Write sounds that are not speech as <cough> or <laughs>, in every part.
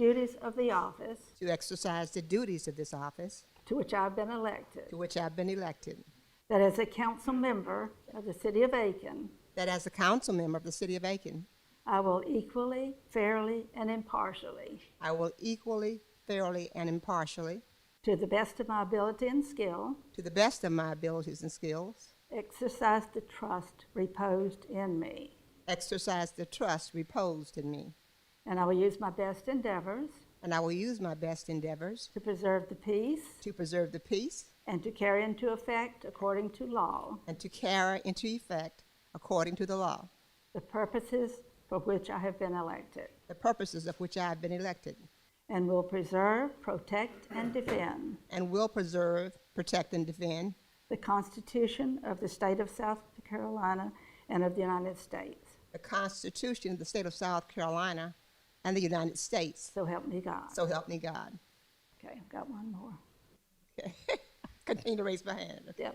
duties of the office to exercise the duties of this office to which I have been elected, to which I've been elected, that as a council member of the city of Aiken, that as a council member of the City of Aiken, I will equally, fairly, and impartially, I will equally, fairly, and impartially, to the best of my ability and skill, to the best of my abilities and skills, exercise the trust reposed in me, exercise the trust reposed in me, and I will use my best endeavors and I will use my best endeavors to preserve the peace to preserve the peace and to carry into effect, according to law, and to carry into effect, according to the law, the purposes for which I have been elected, the purposes of which I have been elected, and will preserve, protect, and defend and will preserve, protect, and defend The Constitution of the State of South Carolina and of the United States. the Constitution of the State of South Carolina and the United States. So help me God. So help me God. Okay, I've got one more. Okay. <laughs> Continue to raise my hand. Yep.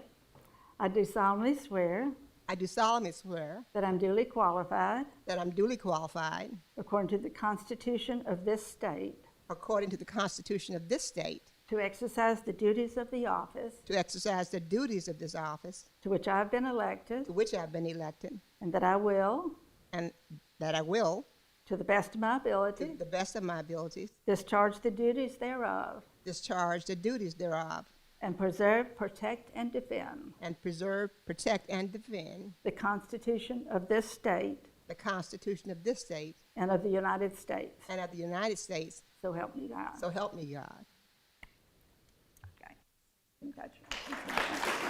I do solemnly swear I do solemnly swear that I'm duly qualified, that I'm duly qualified, according to the Constitution of this state, according to the Constitution of this state, to exercise the duties of the office to exercise the duties of this office to which I have been elected, to which I have been elected, and that I will, and that I will, to the best of my to ability, the best of my abilities, discharge the duties thereof, discharge the duties thereof, and preserve, protect, and defend and preserve, protect, and defend the Constitution of this state the Constitution of this state and of the United States. and of the United States. So help me God. So help me God. Okay. Gotcha.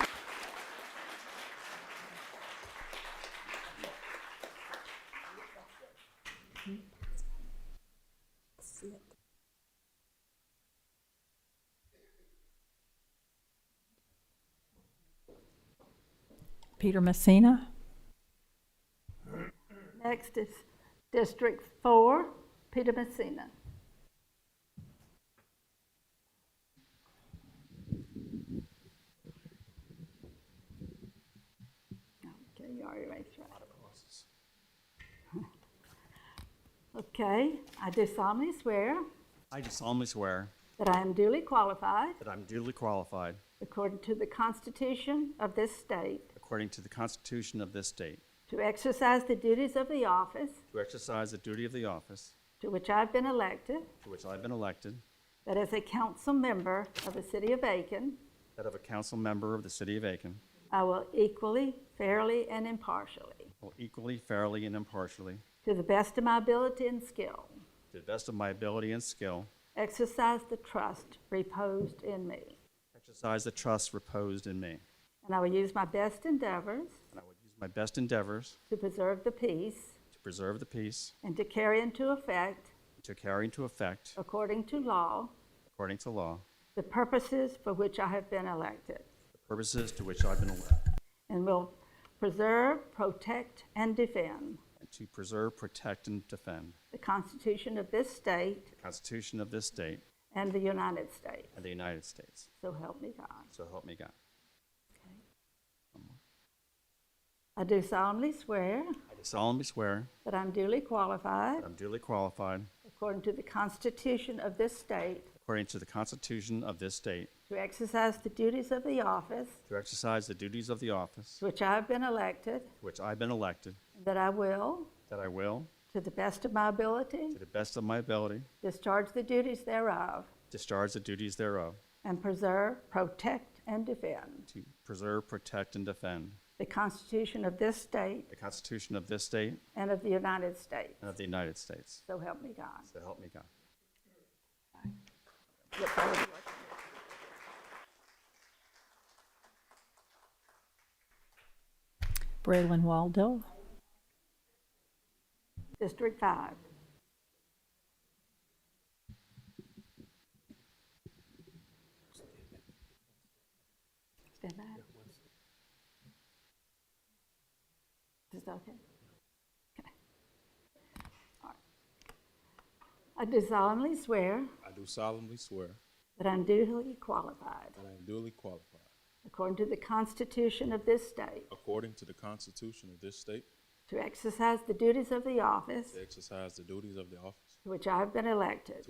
Peter Messina. Next is District Four, Peter Messina. Okay, you already raised your hand. Okay, I do solemnly swear I do solemnly swear that I am duly qualified, that I'm duly qualified, according to the Constitution of this state, according to the Constitution of this state, to exercise the duties of the office to exercise the duty of the office to which I have been elected, to which I have been elected, That as a council member of the city of Aiken, that of a council member of the city of Aiken, I will equally, fairly, and impartially, will equally, fairly, and impartially, to the best of my ability and skill, to the best of my ability and skill, exercise the trust reposed in me. exercise the trust reposed in me, And I will use my best endeavors and I will use my best endeavors to preserve the peace to preserve the peace, and to carry into effect, to carry into effect, according to law, according to law, the purposes for which I have been elected, the purposes to which I've been elected, and will preserve, protect, and defend and to preserve, protect, and defend the Constitution of this state the Constitution of this state and the United States. and the United States. So help me God. So help me God. I do solemnly swear I do solemnly swear that I'm duly qualified, that I'm duly qualified, according to the Constitution of this state, According to the Constitution of this state. to exercise the duties of the office To exercise the duties of the office to which I have been elected, to which I've been elected. and that I will, That I will, to the best of my ability, to the best of my ability, discharge the duties thereof, discharge the duties thereof. and preserve, protect, and defend To preserve, protect, and defend the Constitution of this state the Constitution of this state and of the United States. and of the United States. So help me God. So help me God. Braylon Waldo. District Five. Stand by. Is that okay? Okay. All right. I do solemnly swear I do solemnly swear that I'm duly qualified, that I am duly qualified, according to the Constitution of this state, according to the Constitution of this state, to exercise the duties of the office to exercise the duties of the office to which I have been elected.